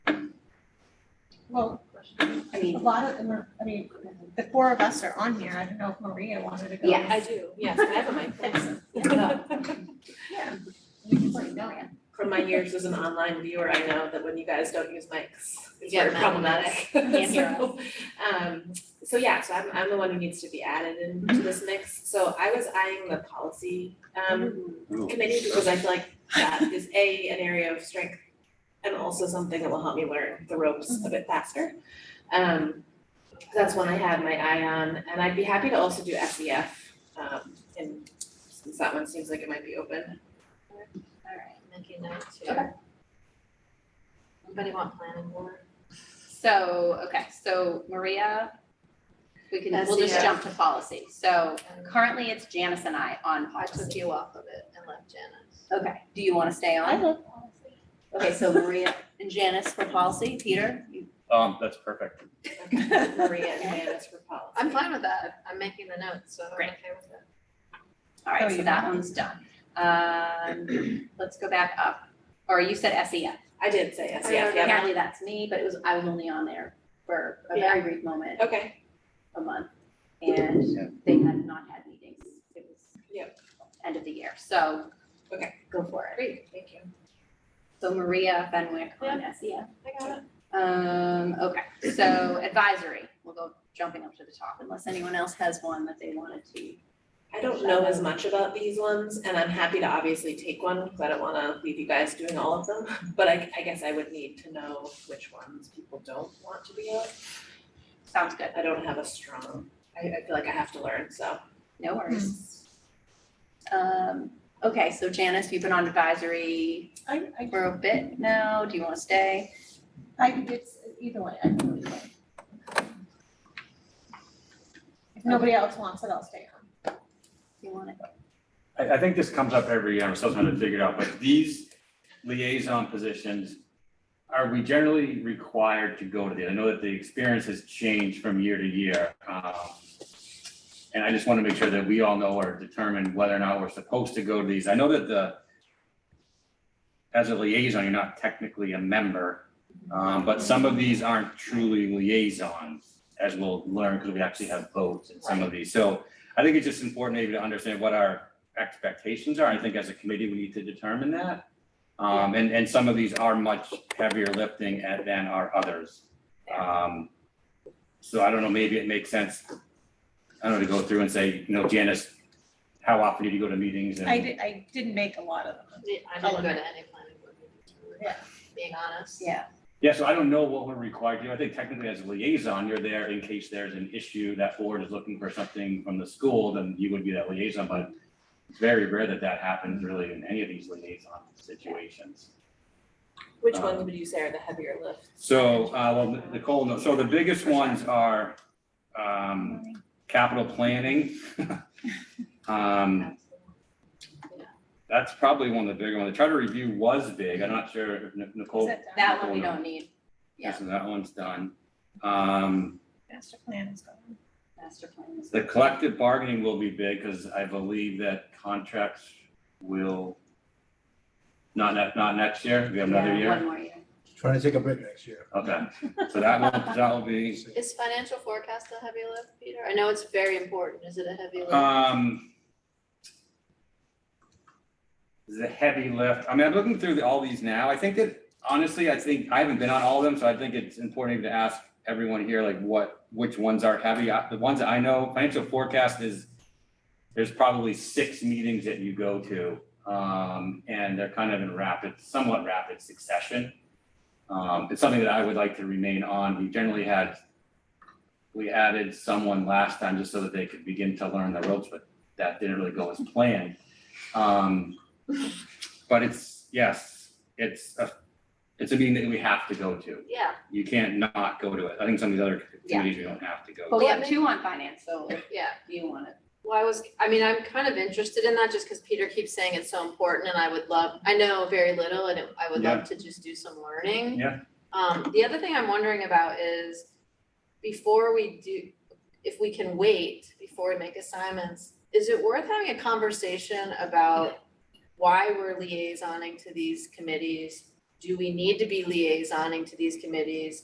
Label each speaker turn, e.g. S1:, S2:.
S1: Well,
S2: I
S1: a
S2: mean,
S1: lot of them are, I mean, the four of us are on here. I don't know if Maria wanted to go.
S2: Yeah.
S3: I do, yes, I have a mindfulness.
S1: Yeah. We can put it down.
S4: From my years as an online viewer, I know that when you guys don't use mics, it's
S3: Yeah,
S4: very
S3: Matt.
S4: problematic.
S3: Can't hear
S4: So, Um, so yeah, so I'm, I'm the one who needs to be added into this mix. So I was eyeing the policy, um, committee because I feel like that is A, an area of strength and also something that will help me learn the ropes a bit faster. Um, that's one I had my eye on and I'd be happy to also do SEF, um, and since that one seems like it might be open.
S3: Alright, making note too.
S4: Okay.
S3: Anybody want planning board?
S5: So, okay, so Maria, we can, we'll just
S3: SEO.
S5: jump to policy. So
S3: And
S5: currently it's Janice and I on
S3: I took
S5: policy.
S3: you off of it and left Janice.
S5: Okay, do you want to stay on?
S1: love
S5: Okay, so Maria and Janice for policy. Peter? you-
S6: Um, that's perfect.
S4: Maria and Janice for policy.
S3: I'm fine with that, I'm making the notes, so I'm
S5: Great.
S3: okay with it.
S1: Oh,
S5: All right, so
S1: you
S5: that
S1: have-
S5: one's done. Um, let's go back up. Or you said SEF.
S4: I did say yes, E yeah, yeah.
S5: Apparently that's me, but it was, I was only on there for a very brief moment,
S4: Okay,
S5: a month. And they had not had meetings. It was
S4: Yep.
S5: end of the year, so.
S4: Okay.
S5: Go for it.
S4: great, thank you.
S5: So Maria Fenwick on SEF.
S4: I got it.
S5: Um, okay, so advisory, we'll go jumping up to the top unless anyone else has one that they wanted to.
S4: I don't know as much about these ones and I'm happy to obviously take one because I don't wanna leave you guys doing all of them. But I, I guess I would need to know which ones people don't want to be on.
S5: Sounds good,
S4: I don't have a strong, I, I feel like I have to learn, so.
S5: no worries. Um, okay, so Janice, you've been on advisory
S1: I, I,
S5: for a bit now, do you wanna stay?
S1: I, it's either way, I can do either way. If nobody else wants it, I'll stay on.
S5: You want it?
S6: I, I think this comes up every year, I'm still trying to figure it out, but these liaison positions, are we generally required to go to the, I know that the experience has changed from year to year. um, And I just want to make sure that we all know or determine whether or not we're supposed to go to these. I know that the, as a liaison, you're not technically a member, um, but some of these aren't truly liaisons, as we'll learn, because we actually have votes in some of these. So I think it's just important maybe to understand what our expectations are. I think as a committee, we need to determine that. Um, and, and some of these are much heavier lifting at- than are others. Um, so I don't know, maybe it makes sense, I don't know, to go through and say, you know, Janice, how often did you go to meetings and?
S1: I did, I didn't make a lot of them.
S3: I didn't go to any planning board meeting,
S1: Yeah.
S3: being honest.
S5: Yeah,
S6: Yeah, so I don't know what we're required to do. I think technically as a liaison, you're there in case there's an issue that board is looking for something from the school, then you would be that liaison, but it's very rare that that happens really in any of these liaison situations.
S4: Which
S6: Um,
S4: ones would you say are the heavier lift?
S6: So, uh, well, Nicole, no- so the biggest ones are, um, capital planning. Um, that's probably one of the bigger ones. The charter review was big. I'm not sure if Nic-
S1: Is
S6: Nicole,
S1: it done?
S5: that one we don't need, yeah.
S6: so that one's done. Um,
S1: Master plan is going.
S5: master plan is.
S6: The collective bargaining will be big because I believe that contracts will not, ne- not next year, we have another
S5: Yeah,
S6: year.
S5: One more year.
S7: Trying to take a break next year.
S6: Okay, so that will, that will be,
S3: Is financial forecast a heavy lift, Peter? I know it's very important, is it a heavy lift?
S6: um, this is a heavy lift. I mean, I'm looking through the- all these now. I think that honestly, I think I haven't been on all of them, so I think it's important to ask everyone here, like what, which ones are heavy. Uh, The ones that I know, financial forecast is, there's probably six meetings that you go to. Um, and they're kind of in rapid, somewhat rapid succession. Um, it's something that I would like to remain on. We generally had, we added someone last time just so that they could begin to learn the ropes, but that didn't really go as planned. Um, but it's, yes, it's a, it's a meeting that we have to go to.
S3: Yeah,
S6: You can't not go to it. I think some of these other
S5: Yeah.
S6: committees we don't have to go.
S5: But we
S3: Yeah,
S5: have
S3: maybe-
S5: two on finance, so if
S3: yeah.
S5: you want it.
S3: Well, I was, I mean, I'm kind of interested in that just because Peter keeps saying it's so important and I would love, I know very little and it- I would love to just do some learning.
S6: Yeah.
S3: Um, the other thing I'm wondering about is before we do, if we can wait before we make assignments, is it worth having a conversation about why we're liaisoning to these committees? Do we need to be liaisoning to these committees?